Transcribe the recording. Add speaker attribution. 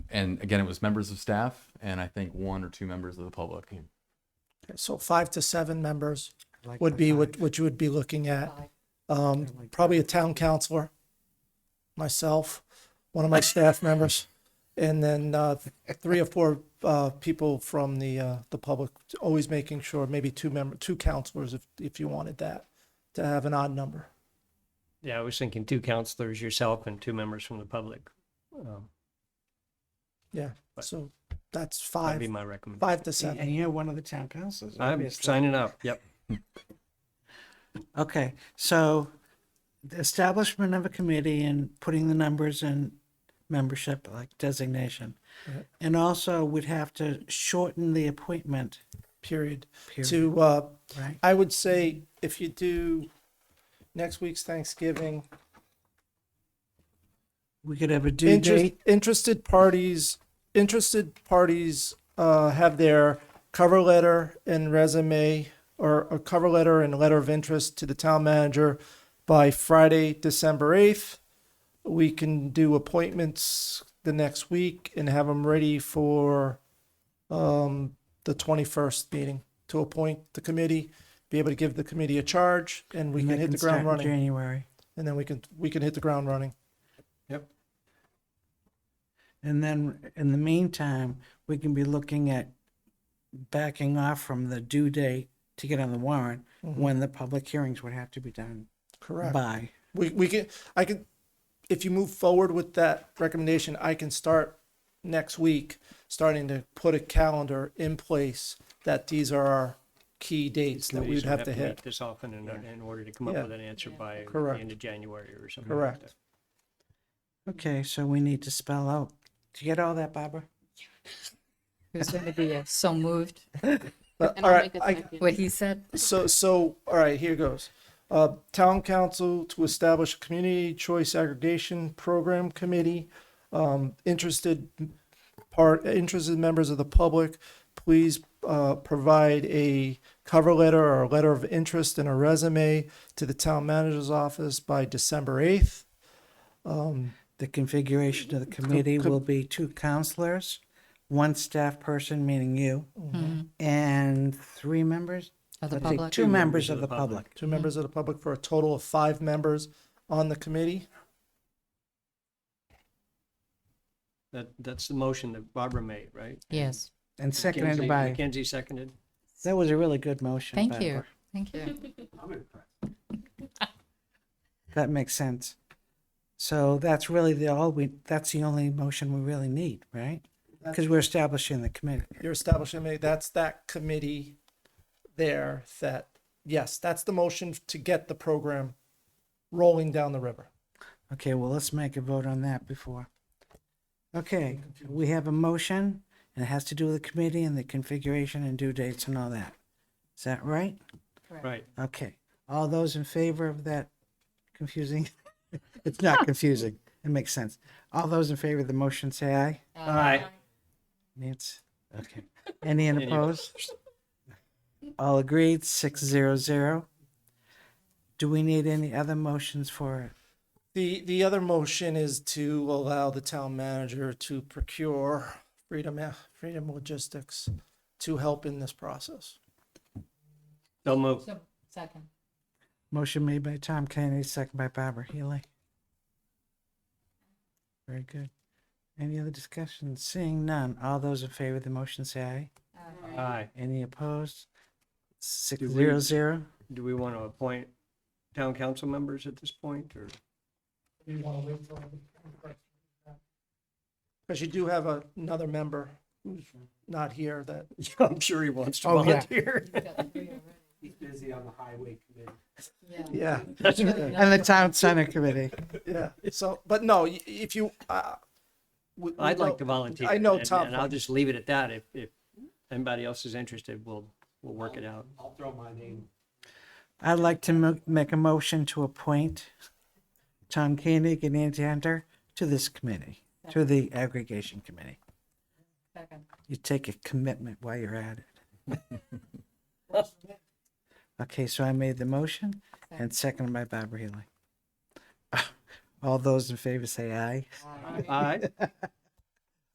Speaker 1: and again, it was members of staff and I think one or two members of the public.
Speaker 2: Okay, So five to seven members would be what, what you would be looking at. Um, probably a town councilor, myself, one of my staff members, and then, uh, three or four, uh, people from the, uh, the public, always making sure, maybe two member, two counselors if, if you wanted that, to have an odd number.
Speaker 3: Yeah, I was thinking two counselors, yourself, and two members from the public. Um,
Speaker 2: Yeah, so that's
Speaker 3: That'd be
Speaker 2: five,
Speaker 3: my recommendation.
Speaker 2: five to seven.
Speaker 4: And you're one of the town councils.
Speaker 3: I'm
Speaker 4: obviously.
Speaker 3: signing up. Yep.
Speaker 4: Okay, so the establishment of a committee and putting the numbers in membership, like designation.
Speaker 2: Right.
Speaker 4: And also we'd have to shorten the appointment,
Speaker 2: period,
Speaker 4: Period.
Speaker 2: to uh
Speaker 4: Right.
Speaker 2: I would say if you do next week's Thanksgiving
Speaker 4: we could have a due
Speaker 2: interest,
Speaker 4: date.
Speaker 2: interested parties interested parties uh have their cover letter and resume or a cover letter and letter of interest to the town manager by Friday, December 8th. We can do appointments the next week and have them ready for um, the 21st meeting to appoint the committee, be able to give the committee a charge, and we
Speaker 4: and
Speaker 2: can
Speaker 4: they
Speaker 2: hit the
Speaker 4: start
Speaker 2: ground
Speaker 4: in
Speaker 2: running.
Speaker 4: January.
Speaker 2: And then we can we can hit the ground running.
Speaker 4: And then in the meantime, we can be looking at backing off from the due date to get on the warrant
Speaker 3: Mm-hmm.
Speaker 4: when the public hearings would have to be done
Speaker 2: Correct.
Speaker 4: by.
Speaker 2: We we can I can if you move forward with that recommendation, I can start next week starting to put a calendar in place that these are our key dates
Speaker 3: So
Speaker 2: that
Speaker 3: you
Speaker 2: we'd
Speaker 3: should
Speaker 2: have to
Speaker 3: meet
Speaker 2: hit.
Speaker 3: This often in, in order to come up
Speaker 2: Yeah.
Speaker 3: with an answer by the
Speaker 2: Correct.
Speaker 3: end of January or something. like
Speaker 2: Correct.
Speaker 3: that.
Speaker 4: Okay, so we need to spell out. Do you get all that, Barbara?
Speaker 5: Who's going to be uh, so moved
Speaker 2: But,
Speaker 6: And
Speaker 2: all
Speaker 6: I'll
Speaker 2: right,
Speaker 6: make a
Speaker 2: I-
Speaker 6: second.
Speaker 5: what he said?
Speaker 2: so so all right, here goes. Uh, town council to establish a community choice aggregation program committee. Um, interested part interested members of the public, please uh, provide a cover letter or a letter of interest and a resume to the town manager's office by December eighth. Um,
Speaker 4: The configuration of the committee will be two counselors, one staff person, meaning you,
Speaker 2: Mm-hmm.
Speaker 5: Hmm.
Speaker 4: and three members?
Speaker 5: Mm-hmm. Of the
Speaker 4: Let's see,
Speaker 5: public?
Speaker 4: Two members of the public.
Speaker 2: Two members of the public for a total of five members on the committee.
Speaker 3: That, that's the motion that Barbara made, right?
Speaker 5: Yes.
Speaker 4: And
Speaker 3: Mackenzie-
Speaker 4: seconded by,
Speaker 3: Mackenzie seconded.
Speaker 4: that was a really good motion.
Speaker 5: Thank
Speaker 4: Barbara.
Speaker 5: you. Thank you.
Speaker 4: That makes sense. So that's really the all we, that's the only motion we really need, right? Because we're establishing the committee.
Speaker 2: You're establishing a- that's that committee there that yes, that's the motion to get the program rolling down the river.
Speaker 4: Okay, well, let's make a vote on that before. Okay, we have a motion, and it has to do with the committee and the configuration and due dates and all that. Is that right?
Speaker 3: Right.
Speaker 4: Okay, all those in favor of that confusing? It's not confusing, it makes sense. All those in favor of the motion, say aye.
Speaker 5: Uh,
Speaker 3: All right.
Speaker 4: Nancy, okay. Any in opposed? All agreed, six zero zero. Do we need any other motions for it?
Speaker 2: The, the other motion is to allow the town manager to procure Freedom, Freedom Logistics to help in this process.
Speaker 3: So moved.
Speaker 5: So, second.
Speaker 4: Motion made by Tom Kennedy, second by Barbara Healy. Very good. Any other discussion? Seeing none, all those in favor of the motion say aye.
Speaker 5: Uh,
Speaker 3: Aye.
Speaker 4: Any opposed? Six
Speaker 3: Do we-
Speaker 4: zero zero.
Speaker 3: Do we want to appoint town council members at this point or?
Speaker 2: Because you do have a- another member who's not here that,
Speaker 3: Yeah, I'm sure he wants to
Speaker 4: Oh, yeah.
Speaker 3: volunteer.
Speaker 2: yeah,
Speaker 4: And the town center committee.
Speaker 2: yeah. So, but no, y- if you, uh. we- we
Speaker 3: I'd like
Speaker 2: don't-
Speaker 3: to volunteer.
Speaker 2: I know
Speaker 3: and-
Speaker 2: Tom.
Speaker 3: And I'll just leave it at that. If, if anybody else is interested, we'll, we'll work it out.
Speaker 4: I'd like to mo- make a motion to appoint Tom Koenig and Andy Hunter to this committee, to the aggregation committee.
Speaker 5: Second.
Speaker 4: You take a commitment while you're at it. Okay, so I made the motion and seconded by Bob Healy. All those in favor say aye.
Speaker 3: Aye.